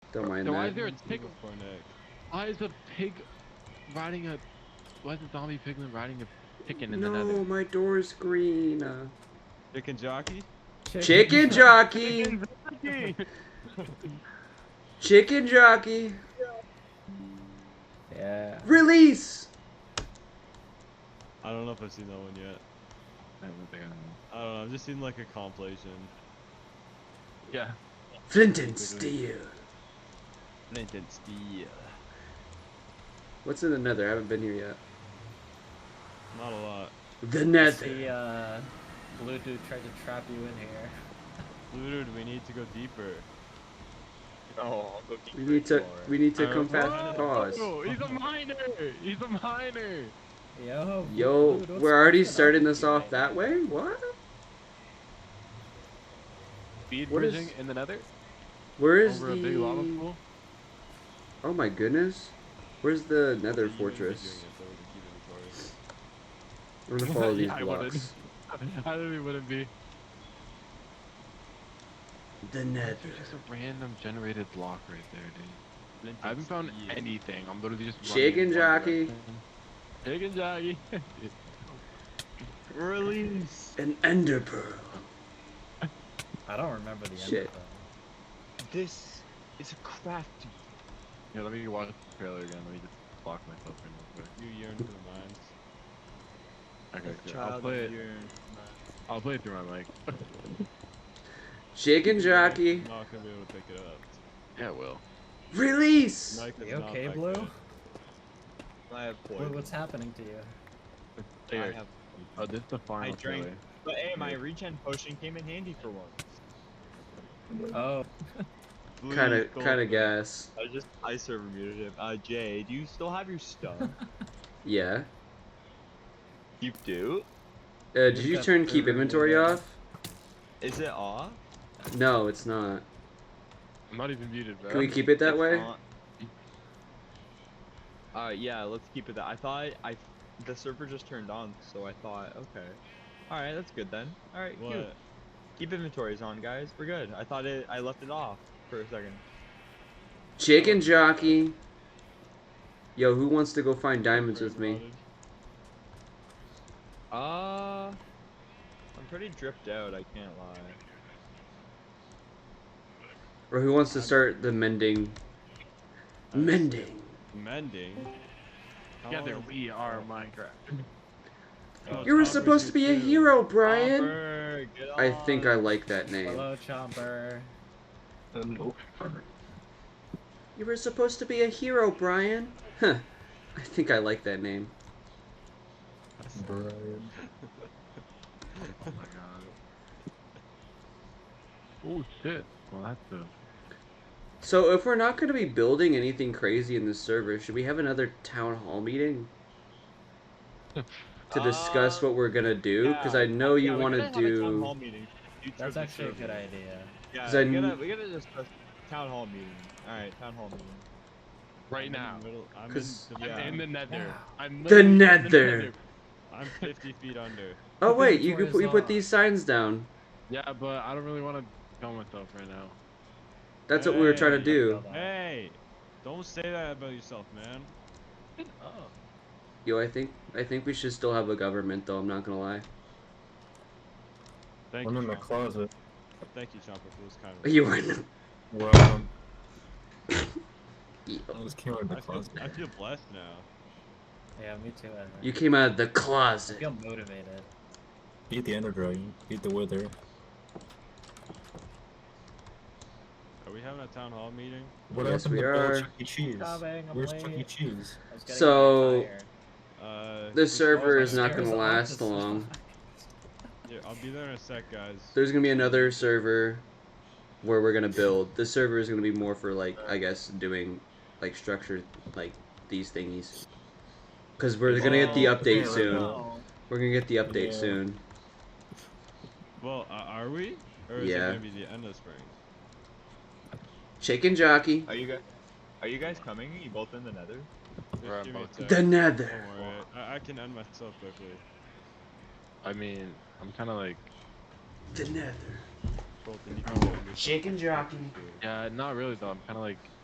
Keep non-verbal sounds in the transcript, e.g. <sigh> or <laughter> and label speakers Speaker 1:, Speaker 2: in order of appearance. Speaker 1: Don't mind
Speaker 2: So why
Speaker 1: that.
Speaker 2: is there a pig?
Speaker 3: Cornet.
Speaker 2: Why Oh, is a pig riding a? Why is a zombie piglin riding a chicken in
Speaker 1: no,
Speaker 2: another?
Speaker 1: my door's green. Uh,
Speaker 3: Chicken jockey?
Speaker 1: chicken jockey. <laughs> Chicken jockey.
Speaker 4: Yeah.
Speaker 1: Release.
Speaker 3: I don't know if I've seen that one yet. I don't know. I've just seen like a compilation.
Speaker 2: Yeah.
Speaker 1: Flint and steel.
Speaker 3: Flint and steel.
Speaker 1: What's in the nether? I haven't been here yet.
Speaker 3: Not a lot.
Speaker 1: The
Speaker 4: That's
Speaker 1: nether.
Speaker 4: the uh, blue dude tried to trap you in here.
Speaker 3: Looted, we need to go deeper.
Speaker 5: Oh, I'll go
Speaker 1: We
Speaker 5: deep.
Speaker 1: need to. We need to
Speaker 3: Uh,
Speaker 1: come
Speaker 3: Whoa!
Speaker 1: fast. Pause.
Speaker 2: Oh, he's a miner. He's a miner.
Speaker 4: Yo.
Speaker 1: Yo,
Speaker 4: Blue Dude, what's
Speaker 1: we're already
Speaker 4: going on
Speaker 1: starting
Speaker 4: with
Speaker 1: this
Speaker 4: you,
Speaker 1: off
Speaker 4: mate?
Speaker 1: that way. What?
Speaker 2: Speed
Speaker 1: What is-
Speaker 2: bridging in the nether
Speaker 1: Where is
Speaker 2: over a big lava
Speaker 1: the?
Speaker 2: pool. <laughs>
Speaker 1: Oh my goodness. Where's the nether
Speaker 3: You wouldn't be
Speaker 1: fortress?
Speaker 3: doing it, so we can keep inventory.
Speaker 1: I'm gonna follow these
Speaker 2: <laughs> Yeah, I wouldn't.
Speaker 1: blocks.
Speaker 2: I literally wouldn't be.
Speaker 1: The
Speaker 2: There's
Speaker 1: nether.
Speaker 2: just a random generated block right there, dude.
Speaker 3: Flint and
Speaker 2: I haven't found
Speaker 3: steel.
Speaker 2: anything. I'm literally just running
Speaker 1: Chicken
Speaker 2: in one
Speaker 1: jockey.
Speaker 2: direction. Chicken jockey. <laughs>
Speaker 3: Release!
Speaker 1: An ender pearl.
Speaker 4: I don't remember the
Speaker 1: Shit.
Speaker 4: end. of that.
Speaker 3: This is a crafty.
Speaker 2: yeah, let me watch the trailer again. Let me just block myself in real
Speaker 3: You yearn for the mines.
Speaker 2: quick. Okay, cool. I'll
Speaker 3: Child,
Speaker 2: play it.
Speaker 3: you yearn for the mines.
Speaker 2: I'll play it through my mic.
Speaker 1: Chicken jockey.
Speaker 3: I'm not gonna be able to pick it up.
Speaker 2: Yeah, it will.
Speaker 1: Release.
Speaker 3: Mike is
Speaker 4: You
Speaker 3: not
Speaker 4: okay,
Speaker 3: that
Speaker 4: Blue?
Speaker 3: good.
Speaker 5: I have
Speaker 4: What,
Speaker 5: poison.
Speaker 4: what's happening to you?
Speaker 5: I
Speaker 2: There.
Speaker 5: have-
Speaker 2: Oh, this is the final
Speaker 5: drank-
Speaker 2: trailer.
Speaker 5: But hey, my regen potion came in handy for once.
Speaker 4: Oh,
Speaker 3: Blue
Speaker 1: Kind
Speaker 3: is
Speaker 1: of,
Speaker 3: gold,
Speaker 1: kind of
Speaker 3: Blue.
Speaker 1: gas.
Speaker 5: I just I server muted him. Uh, Jay, do you still have your stuff?
Speaker 1: <laughs> Yeah.
Speaker 5: you do.
Speaker 1: Uh, did you
Speaker 4: got
Speaker 1: turn
Speaker 4: the
Speaker 1: keep
Speaker 4: really
Speaker 1: inventory
Speaker 4: bad-
Speaker 1: off?
Speaker 5: Is it off?
Speaker 1: No, it's not.
Speaker 2: I'm not even muted, bro.
Speaker 1: Can we keep it that
Speaker 5: It's
Speaker 1: way?
Speaker 5: on- Uh, yeah, let's keep it that. I thought I, the server just turned on, so I thought, okay, all right, that's good then. All right, cute.
Speaker 3: What?
Speaker 5: keep inventories on, guys. We're good. I thought it, I left it off for a second.
Speaker 1: Chicken jockey. Yo, who wants to go find diamonds with me?
Speaker 3: Rotted.
Speaker 5: Uh, I'm pretty dripped out. I can't lie.
Speaker 1: Or who wants to start the mending? Mending.
Speaker 3: Mending. How
Speaker 5: Oh.
Speaker 2: Together
Speaker 3: long-
Speaker 2: we are Minecraft.
Speaker 3: Oh,
Speaker 1: <laughs> You were
Speaker 3: Chopper
Speaker 1: supposed to be a
Speaker 3: 22.
Speaker 1: hero, Brian.
Speaker 2: Oh
Speaker 5: Chopper, get
Speaker 1: I think I
Speaker 5: on.
Speaker 1: like that name.
Speaker 4: hello, Chomper.
Speaker 1: You were supposed to be a hero, Brian. Huh. I think I like that name.
Speaker 2: Oh my god. Oh shit. Well, that's a.
Speaker 1: So if we're not going to be building anything crazy in this server, should we have another town hall meeting? To discuss
Speaker 5: Uh,
Speaker 1: what we're going to do? Because I
Speaker 5: yeah.
Speaker 1: know you
Speaker 5: Yeah, we
Speaker 1: want
Speaker 5: gotta
Speaker 1: to
Speaker 5: have a town hall
Speaker 1: do...
Speaker 5: meeting. You chose
Speaker 4: That's
Speaker 5: the
Speaker 4: actually a
Speaker 5: server.
Speaker 4: good idea.
Speaker 5: Yeah,
Speaker 1: 'Cause I
Speaker 5: we gotta,
Speaker 1: kn-
Speaker 5: we gotta discuss town hall meeting. All right, town hall meeting.
Speaker 3: I'm
Speaker 2: Right
Speaker 3: in
Speaker 2: now.
Speaker 3: the middle- I'm in
Speaker 1: 'Cause-
Speaker 3: the-
Speaker 2: I'm
Speaker 5: Yeah.
Speaker 2: in the nether. I'm
Speaker 1: The
Speaker 2: literally in
Speaker 1: nether.
Speaker 3: I'm 50 feet under.
Speaker 1: Oh
Speaker 4: The
Speaker 1: wait, you could
Speaker 4: inventory
Speaker 1: put,
Speaker 4: is
Speaker 1: you put
Speaker 4: on.
Speaker 1: these signs down.
Speaker 2: Yeah, but I don't really want to kill myself right now.
Speaker 1: That's what we were trying to
Speaker 3: Hey.
Speaker 5: Mm-hmm.
Speaker 1: do.
Speaker 3: Hey, don't say that about yourself, man.
Speaker 4: Oh.
Speaker 1: Yo, I think I think we should still have a government though, I'm not gonna lie. <laughs>
Speaker 3: Thank
Speaker 6: I'm
Speaker 3: you.
Speaker 6: in the
Speaker 3: Chomper.
Speaker 6: closet.
Speaker 3: Thank you, Chomper, for this kind of.
Speaker 1: You were in
Speaker 6: Well,
Speaker 1: <laughs>
Speaker 6: um,
Speaker 1: the,
Speaker 6: I just came out of the
Speaker 3: I feel,
Speaker 6: closet.
Speaker 3: I feel blessed now.
Speaker 4: Yeah, me too. Edward.
Speaker 1: You came out of the
Speaker 4: I
Speaker 1: closet.
Speaker 4: feel motivated.
Speaker 6: Eat the ender dragon. Eat the wither.
Speaker 3: Are we having a town hall meeting?
Speaker 6: What
Speaker 1: Yes,
Speaker 6: happened
Speaker 1: we
Speaker 6: to
Speaker 1: are.
Speaker 6: Bill Chuck E. Cheese?
Speaker 4: Coming, I'm
Speaker 6: Where's
Speaker 4: late.
Speaker 6: Chuck E. Cheese?
Speaker 4: I was getting
Speaker 1: So-
Speaker 4: on fire.
Speaker 3: Uh,
Speaker 1: The server
Speaker 4: my
Speaker 1: is not
Speaker 4: stairs
Speaker 1: gonna
Speaker 4: up,
Speaker 1: last
Speaker 4: this is <laughs>
Speaker 1: long.
Speaker 4: fine.
Speaker 3: yeah, I'll be there in a sec, guys.
Speaker 1: There's gonna be another server where we're gonna build. This server is gonna be more for like I guess doing like structured like these thingies. Cause we're gonna get the
Speaker 4: Oh,
Speaker 1: update
Speaker 6: yeah,
Speaker 1: soon.
Speaker 6: no.
Speaker 4: Oh,
Speaker 1: We're gonna get the update
Speaker 6: Yeah.
Speaker 1: soon.
Speaker 3: Well, uh, are we? Or is
Speaker 1: Yeah.
Speaker 3: it gonna be the end of spring?
Speaker 1: Chicken jockey.
Speaker 5: Are you guys? Are you guys coming? You both in the Nether?
Speaker 3: Just
Speaker 2: We're
Speaker 3: give me a
Speaker 2: both
Speaker 3: sec.
Speaker 1: The
Speaker 3: Don't
Speaker 1: nether.
Speaker 3: worry, I, I can end myself quickly.
Speaker 2: I mean, I'm kind of like,
Speaker 1: The nether.
Speaker 3: Both of you can join me.
Speaker 1: Chicken jockey.
Speaker 2: yeah, not really though. I'm kind of like